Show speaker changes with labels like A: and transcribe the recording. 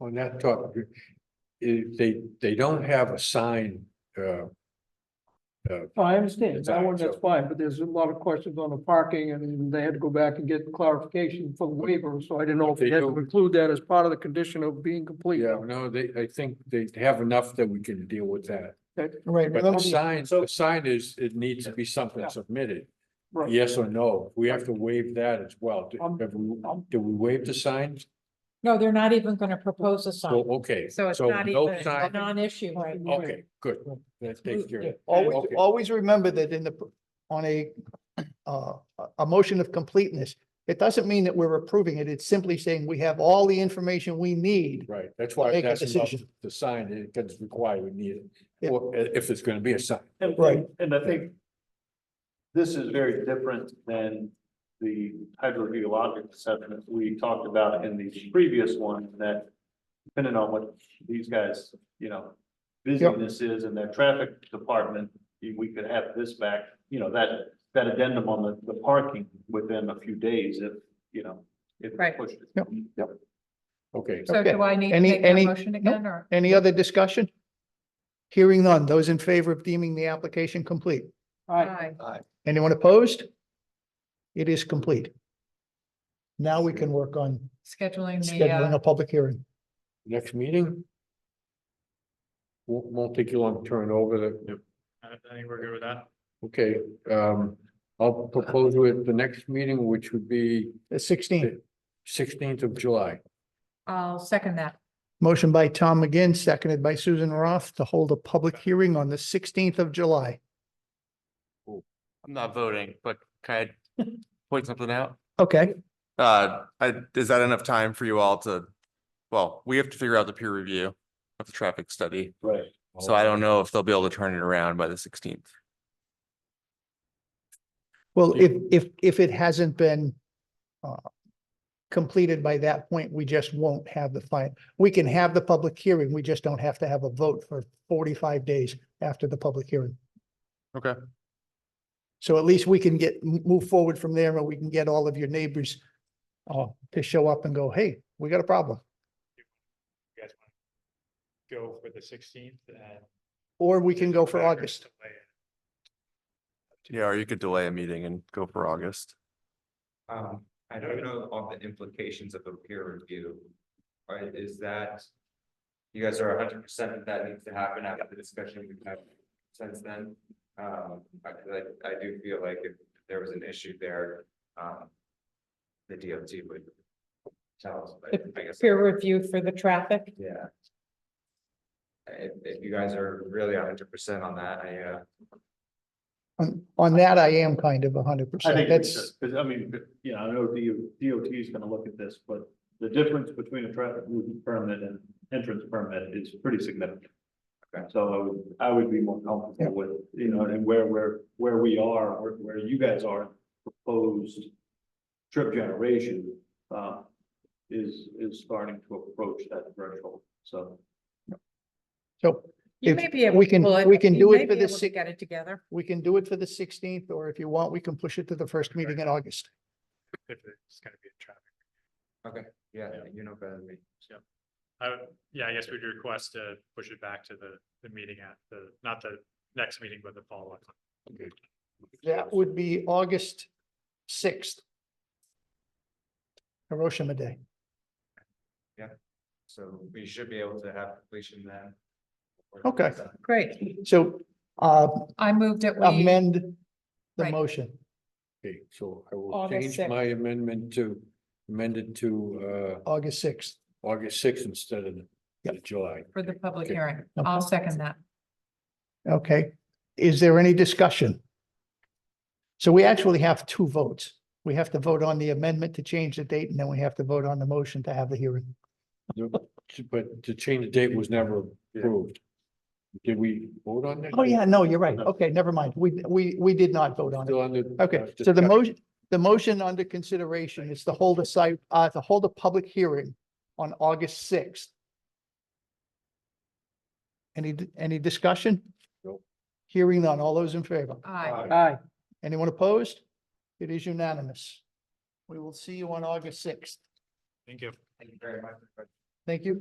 A: I'm not talking, if uh, eh, they, they don't have a sign, uh,
B: Oh, I understand, that one,
A: Exactly.
B: that's fine, but there's a lot of questions on the parking, and they had to go back and get clarification for the waiver, so I didn't know if
A: They
B: they had to
A: don't-
B: include that as part of the condition of being complete.
A: yeah, no, they, I think they have enough that we can deal with that.
C: Right,
A: But
C: but
A: the
C: those-
A: sign, the sign is, it needs to be something submitted,
B: Right.
A: yes or no, we have to waive that as well. Do
B: Um,
A: have we-
B: um.
A: do we waive the signs?
D: No, they're not even gonna propose a
A: So,
D: sign,
A: okay,
D: so it's
A: so
D: not
A: no
D: even a
A: sign,
D: non-issue.
B: Right.
A: okay, good, that takes care of it.
C: always,
A: Okay.
C: always remember that in the, on a, uh, a- a motion of completeness, it doesn't mean that we're approving it. It's simply saying we have all the information we need.
A: Right, that's why
C: Make a
A: that's about
C: decision.
A: the sign, it gets required, we need it,
C: Yeah.
A: or i- if it's gonna be a sign.
E: And,
C: Right.
E: and I think this is very different than the hydrogeologic assessment we talked about in the previous one, that depending on what these guys, you know, busyness is in their traffic department, we could have this back, you know, that, that addendum on the, the parking within a few days if, you know, if
D: Right.
E: pushed.
C: Yep.
A: Okay,
D: So
C: Okay.
D: do I need to
C: Any-
D: make
C: any-
D: that motion
C: no.
D: again, or?
C: Any other discussion? Hearing none. Those in favor of deeming the application complete?
B: Aye.
D: Aye.
C: Anyone opposed? It is complete. Now we can work on
D: Scheduling the,
C: scheduling
D: uh,
C: a public hearing.
A: next meeting? Won't, won't take you long to turn over the,
F: Uh,
E: I think we're good with that.
A: okay, um, I'll propose with the next meeting, which would be
C: The sixteenth,
A: sixteenth of July.
D: I'll second that.
C: motion by Tom McGinn, seconded by Susan Roth to hold a public hearing on the sixteenth of July.
G: I'm not voting, but can I point something out?
C: Okay,
G: Uh, I- is that enough time for you all to? Well, we have to figure out the peer review of the traffic study,
E: Right.
G: so I don't know if they'll be able to turn it around by the sixteenth.
C: well, if, if, if it hasn't been uh, completed by that point, we just won't have the fine. We can have the public hearing, we just don't have to have a vote for forty-five days after the public hearing.
G: Okay.
C: So at least we can get, m- move forward from there and we can get all of your neighbors uh, to show up and go, hey, we got a problem.
F: you guys want to go for the sixteenth and.
C: Or we can go for
F: Back or
C: August.
F: delay it.
G: Yeah, or you could delay a meeting and go for August.
H: Um, I don't know on the implications of a peer review. Or is that? You guys are hundred percent that that needs to happen after the discussion we've had since then. Um, I, like, I do feel like if there was an issue there, um. The DOT would. Tell us, but I guess.
D: Peer review for the traffic.
H: Yeah. If, if you guys are really hundred percent on that, I, uh.
C: On, on that, I am kind of hundred
E: I
C: percent.
E: think
C: That's,
E: it's just, because I mean, you know, I know DOT is gonna look at this, but the difference between a traffic movement permit and entrance permit is pretty significant.
H: Okay.
E: So I would, I would be more
C: Yeah.
E: comfortable with, you know, and where we're, where we are, where, where you guys are proposed trip generation, uh, is, is starting to approach that threshold, so.
C: so
D: You
C: If
D: may be able.
C: we can-
D: well,
C: we can
D: you
C: do it
D: may
C: for
D: be
C: the
D: able to
C: six-
D: Get it together.
C: we can do it for the sixteenth, or if you want, we can push it to the first meeting in August.
F: If it's gonna be a traffic.
H: Yeah, you know better than me.
F: I, would- yeah, I guess we'd request to push it back to the, the meeting at the, not the next meeting, but the follow-up.
C: That would be August sixth. Hiroshima Day.
H: So we should be able to have completion then.
C: Okay.
D: Great.
C: So uh,
D: I moved it.
C: amend the
D: Right.
C: motion.
A: Okay, so I will
D: August
A: change
D: sixth.
A: my amendment to, amend it to,
C: August sixth.
A: uh, August sixth instead of the-
C: Yep.
A: the July.
D: For the public
A: Okay.
D: hearing.
C: Okay.
D: I'll second that.
C: Okay, is there any discussion? So we actually have two votes. We have to vote on the amendment to change the date, and then we have to vote on the motion to have the hearing.
A: The- But to change the date was never approved. Did we vote on that?
C: Oh, yeah, no, you're right. Okay, never mind. We, we, we did not vote on it.
A: Still on the. uh,
C: Okay, so the
A: discussion.
C: motion, the motion under consideration is to hold a site, uh, to hold a public hearing on August sixth. Any, d- any discussion?
A: Nope.
C: Hearing none. All those in favor?
D: Aye.
B: Aye.
C: Anyone opposed? It is unanimous. We will see you on August sixth.
F: Thank you.
H: Thank you very much.
C: Thank you.